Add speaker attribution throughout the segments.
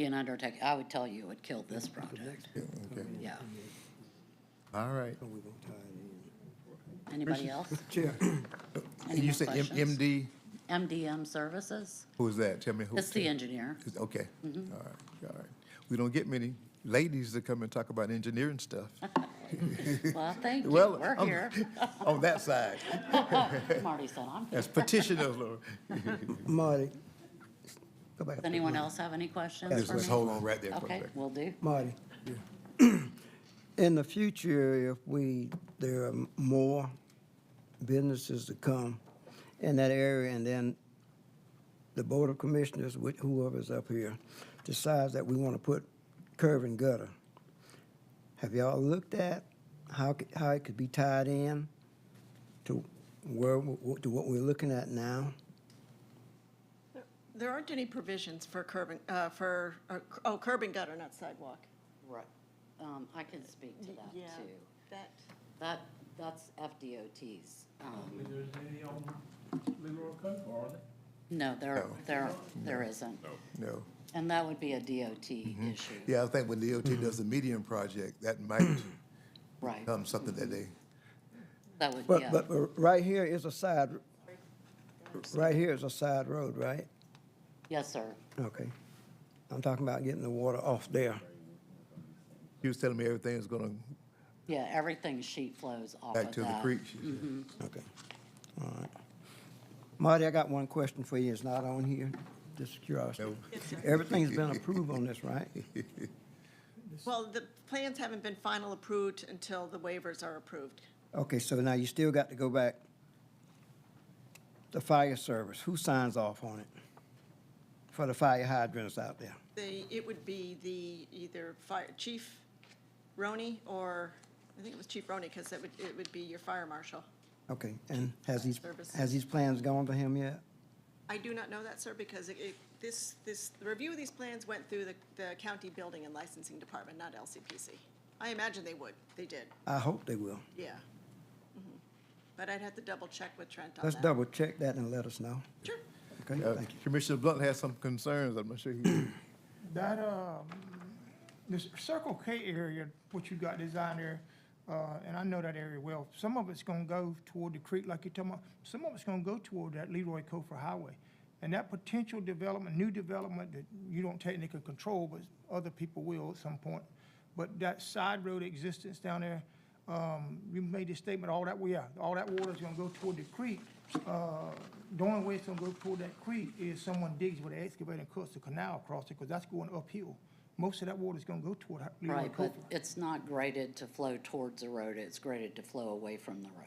Speaker 1: be an undertaking, I would tell you it would kill this project,
Speaker 2: Okay,
Speaker 1: yeah.
Speaker 2: all right.
Speaker 1: Anybody else?
Speaker 2: Chair.
Speaker 1: Any more
Speaker 2: You said M-
Speaker 1: questions?
Speaker 2: MD,
Speaker 1: MDM Services,
Speaker 2: who is that? Tell me who.
Speaker 1: it's the Mm-hmm. engineer.
Speaker 2: Is- Okay, all right, all right. We don't get many ladies that come and talk about engineering stuff.
Speaker 1: Well, thank you,
Speaker 2: Well,
Speaker 1: we're
Speaker 2: I'm-
Speaker 1: here. Oh,
Speaker 2: On that side,
Speaker 1: Marty said I'm here.
Speaker 2: as petitioners, Lord.
Speaker 3: Marty. Go back.
Speaker 1: Does
Speaker 3: up to
Speaker 1: anyone
Speaker 3: Marty.
Speaker 1: else have any questions
Speaker 2: Just
Speaker 1: for me?
Speaker 2: let's hold on right there for a
Speaker 1: Okay,
Speaker 2: second.
Speaker 1: will do.
Speaker 3: Marty. In the future, if we, there are more businesses to come in that area, and then the Board of Commissioners, with whoever's up here, decides that we want to put curb and gutter. Have y'all looked at how, c- how it could be tied in to where, w- to what we're looking at now?
Speaker 4: There aren't any provisions for curb and, uh, for, or- oh, curb and gutter, not sidewalk.
Speaker 1: Right. Um, I can speak to that
Speaker 4: Yeah,
Speaker 1: too.
Speaker 4: That,
Speaker 1: That, that's FDOT's. um,
Speaker 5: If there's any on Leroy Cove, are there?
Speaker 1: No, there,
Speaker 2: No.
Speaker 1: there, there isn't.
Speaker 2: No. Mm-hmm.
Speaker 1: And that would be a DOT issue,
Speaker 2: Yeah, I think when
Speaker 1: Mm-hmm.
Speaker 2: DOT does the medium project, that might
Speaker 1: right?
Speaker 2: become something that they,
Speaker 1: That would,
Speaker 3: But,
Speaker 1: yeah,
Speaker 3: but, but right here is a side, right here is a side road, right?
Speaker 1: yes, sir.
Speaker 3: Okay. I'm talking about getting the water off there.
Speaker 2: he was telling me everything's gonna
Speaker 1: Yeah, everything sheet flows off of that. Mm-hmm.
Speaker 2: back to the creek. she said.
Speaker 3: Okay. All right. Marty, I got one question for you. It's not on here, just curiosity.
Speaker 2: No.
Speaker 3: Everything's been approved on this, right?
Speaker 4: well, the plans haven't been final approved until the waivers are approved.
Speaker 3: Okay, so now you still got to go back. The fire service, who signs off on it? For the fire hydrants out there?
Speaker 4: They, it would be the, either fire, Chief Roney or, I think it was Chief Roney, because that would, it would be your fire marshal.
Speaker 3: Okay, and has these,
Speaker 4: Service.
Speaker 3: has these plans gone to him yet?
Speaker 4: I do not know that, sir, because it, it- this, this, the review of these plans went through the, the county building and licensing department, not LCPC. I imagine they would, they did,
Speaker 3: I hope they will.
Speaker 4: yeah. Mhm. But I'd have to double check with Trent on that.
Speaker 3: Let's double check that and let us know.
Speaker 4: Sure.
Speaker 3: Okay,
Speaker 2: Uh,
Speaker 3: thank you.
Speaker 2: Commissioner Blunt has some concerns, I'm not sure he.
Speaker 6: That, um, this Circle K area, what you got designed there, uh, and I know that area well, some of it's gonna go toward the creek like you're talking about, some of it's gonna go toward that Leroy Cofer Highway. And that potential development, new development that you don't technically control, but other people will at some point. But that side road existence down there, um, you made the statement, all that, well, yeah, all that water's gonna go toward the creek. Uh, The only way it's gonna go toward that creek is someone digs with an excavator and cuts the canal across it, because that's going uphill. Most of that water's gonna go toward Leroy
Speaker 1: Right, but
Speaker 6: Cooper.
Speaker 1: it's not graded to flow towards the road, it's graded to flow away from the road.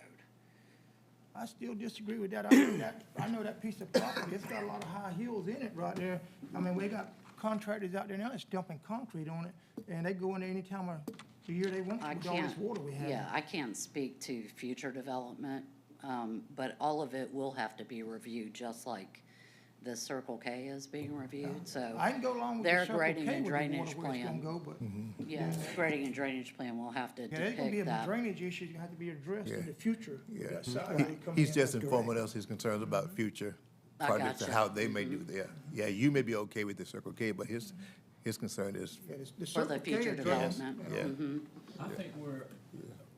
Speaker 6: I still disagree with that. I know that, I know that piece of property, it's got a lot of high hills in it right there. I mean, we got contractors out there now that's dumping concrete on it, and they go in there any time of the year they want to
Speaker 1: I
Speaker 6: with all this
Speaker 1: can't,
Speaker 6: water we have.
Speaker 1: yeah, I can't speak to future development, um, but all of it will have to be reviewed, just like the Circle K is being reviewed, so.
Speaker 6: I can go along with the
Speaker 1: their
Speaker 6: Circle K
Speaker 1: grading
Speaker 6: with the
Speaker 1: and
Speaker 6: water
Speaker 1: drainage
Speaker 6: where it's gonna
Speaker 1: plan.
Speaker 6: go, but
Speaker 2: Mm-hmm.
Speaker 1: Yeah, grading and drainage plan will have to
Speaker 6: Yeah, there's gonna be
Speaker 1: depict
Speaker 6: a
Speaker 1: that.
Speaker 6: drainage issue that have to be addressed in
Speaker 2: Yeah.
Speaker 6: the future.
Speaker 2: Yeah.
Speaker 6: That side when it comes
Speaker 2: He's
Speaker 6: in.
Speaker 2: just informing us his concerns about future
Speaker 1: I
Speaker 2: projects and
Speaker 1: gotcha.
Speaker 2: how they may do there. Yeah, you may be okay with the Circle K, but his, his concern is,
Speaker 6: Yeah, this- the
Speaker 1: For the
Speaker 6: Circle K
Speaker 1: future
Speaker 6: address-
Speaker 1: development.
Speaker 2: yeah,
Speaker 1: Mm-hmm.
Speaker 5: I think we're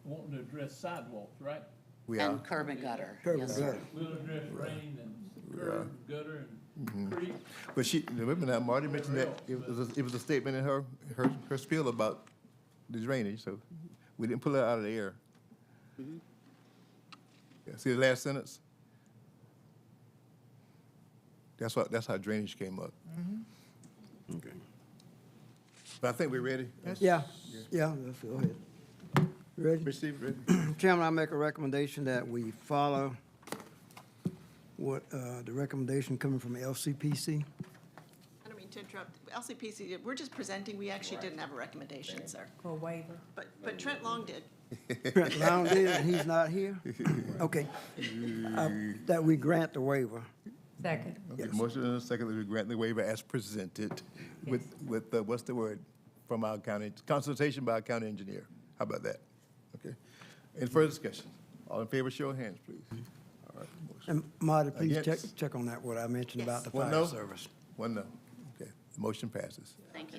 Speaker 5: wanting to address sidewalks, right?
Speaker 2: we are.
Speaker 1: And curb and gutter,
Speaker 3: Curb
Speaker 1: yes,
Speaker 3: and
Speaker 1: sir.
Speaker 3: gutter.
Speaker 5: We'll address rain and curb, gutter and creek.
Speaker 2: But she, remember now, Marty mentioned that, it was, a- it was a statement in her, her, her spiel about the drainage, so we didn't pull it out of the air.
Speaker 1: Mm-hmm.
Speaker 2: Yeah, See the last sentence? That's what, that's how drainage came up. But I think we're ready.
Speaker 3: Yeah, yeah, let's go ahead. Ready?
Speaker 2: Mr. Stevens, ready?
Speaker 3: Chairman, I make a recommendation that we follow what, uh, the recommendation coming from LCPC.
Speaker 4: I don't mean to interrupt. LCPC, we're just presenting, we actually didn't have a recommendation, sir.
Speaker 7: Or waiver.
Speaker 4: But, but Trent Long did.
Speaker 3: Trent Long did, and he's not here? Okay. Uh, That we grant the waiver.
Speaker 7: Second.
Speaker 2: Okay, Motion and a second that we grant the waiver as presented with, with, uh, what's the word, from our county, consultation by our county engineer. How about that? Okay. Any further discussion? All in favor, show of hands, please. All right. motion-
Speaker 3: And Marty, please check,
Speaker 2: Against.
Speaker 3: check on that, what I mentioned about the
Speaker 2: One no?
Speaker 3: fire service.
Speaker 2: One no. Okay,
Speaker 8: The motion passes.
Speaker 2: Thank you.